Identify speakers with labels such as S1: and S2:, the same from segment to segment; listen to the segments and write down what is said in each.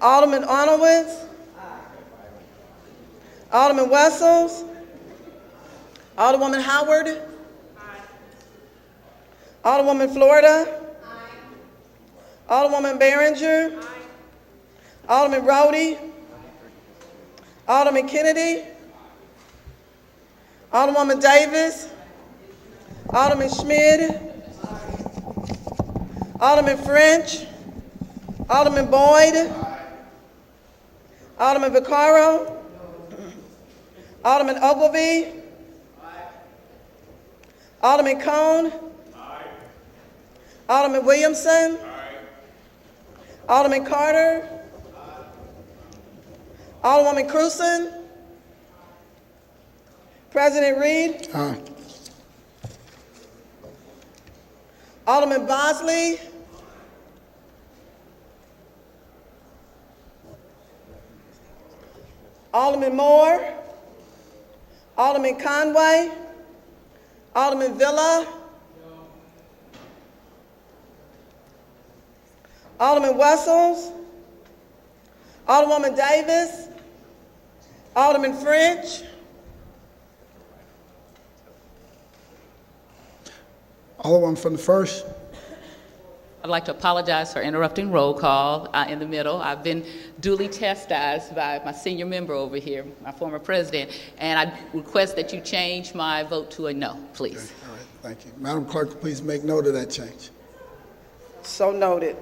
S1: Alderman Honowitz. Alderman Wessels. Alderwoman Howard. Alderwoman Florida. Alderwoman Behringer. Alderman Rhodey. Alderman Kennedy. Alderwoman Davis. Alderman Schmidt. Alderman French. Alderman Boyd. Alderman Vaccaro. Alderman Ogilvy. Alderman Cone. Alderman Williamson. Alderman Carter. Alderwoman Cruzen. President Reed.
S2: Aye.
S1: Alderman Bosley. Alderman Moore. Alderman Conway. Alderman Villa. Alderman Wessels. Alderwoman Davis. Alderman French.
S2: Alderman from the first.
S3: I'd like to apologize for interrupting roll call uh, in the middle. I've been duly chastised by my senior member over here, my former president, and I request that you change my vote to a no, please.
S2: All right, thank you. Madam Clerk, please make note of that change.
S1: So noted.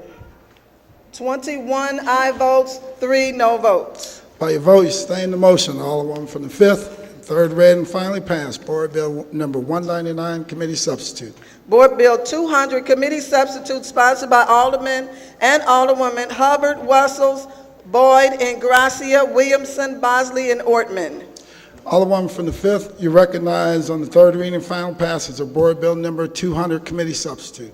S1: 21 aye votes, three no votes.
S2: By your vote, you sustain the motion. Alderman from the fifth, third read and finally passed. Board Bill Number 199, Committee Substitute.
S1: Board Bill 200, Committee Substitute sponsored by Alderman and Alderwoman Hubbard, Wessels, Boyd, and Gracia, Williamson, Bosley, and Ortman.
S2: Alderman from the fifth, you recognize on the third reading and final passage of Board Bill Number 200, Committee Substitute.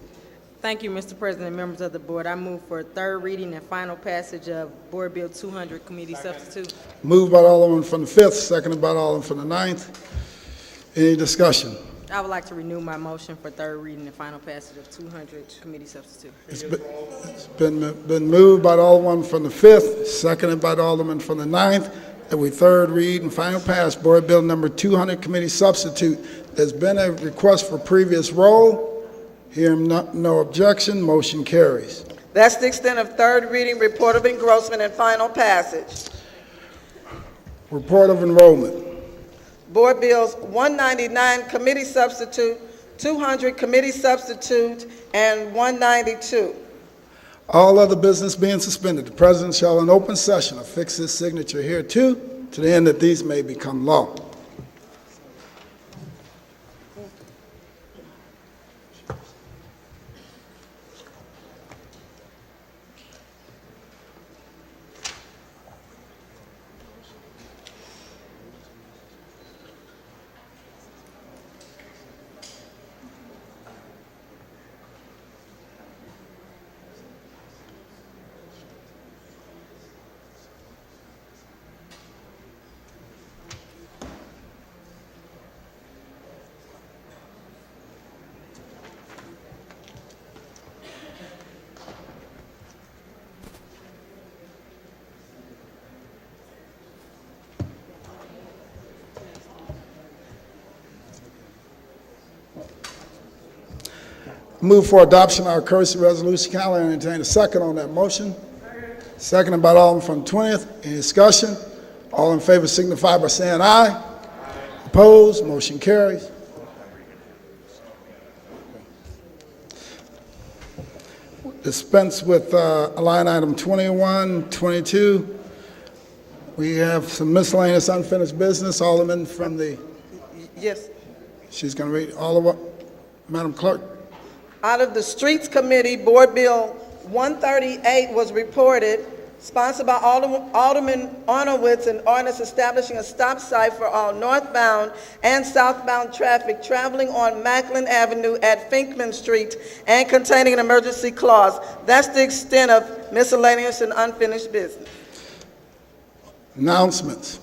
S4: Thank you, Mr. President, members of the board. I move for third reading and final passage of Board Bill 200, Committee Substitute.
S2: Moved by Alderman from the fifth, seconded by Alderman from the ninth. Any discussion?
S4: I would like to renew my motion for third reading and final passage of 200, Committee Substitute.
S2: It's been- it's been, been moved by Alderman from the 5th, seconded by Alderman from the ninth, that we third read and final pass Board Bill Number 200 Committee Substitute. There's been a request for previous roll. Hearing no- no objection, motion carries.
S1: That's the extent of third reading, report of engrossment, and final passage.
S2: Report of enrollment.
S1: Board Bills 199, Committee Substitute, 200, Committee Substitute, and 192.
S2: All other business being suspended, the President shall in open session affix his signature here too, to the end that these may become law. Move for adoption of our courtesy resolution. Can I entertain a second on that motion? Seconded by Alderman from the 20th. Any discussion? All in favor signify by saying aye. Opposed, motion carries. Dispense with uh, line item 21, 22. We have some miscellaneous unfinished business. Alderman from the,
S1: Yes.
S2: she's going to read, Alderman, Madam Clerk.
S1: Out of the Streets Committee, Board Bill 138 was reported, sponsored by Alderm- Alderman Arnowitz, an ordinance establishing a stop sign for all northbound and southbound traffic traveling on Macklin Avenue at Finkman Street and containing an emergency clause. That's the extent of miscellaneous and unfinished business.
S2: Announcements.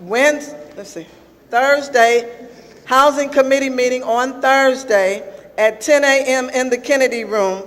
S1: Wednesday, let's see, Thursday, Housing Committee meeting on Thursday at 10 a.m. in the Kennedy Room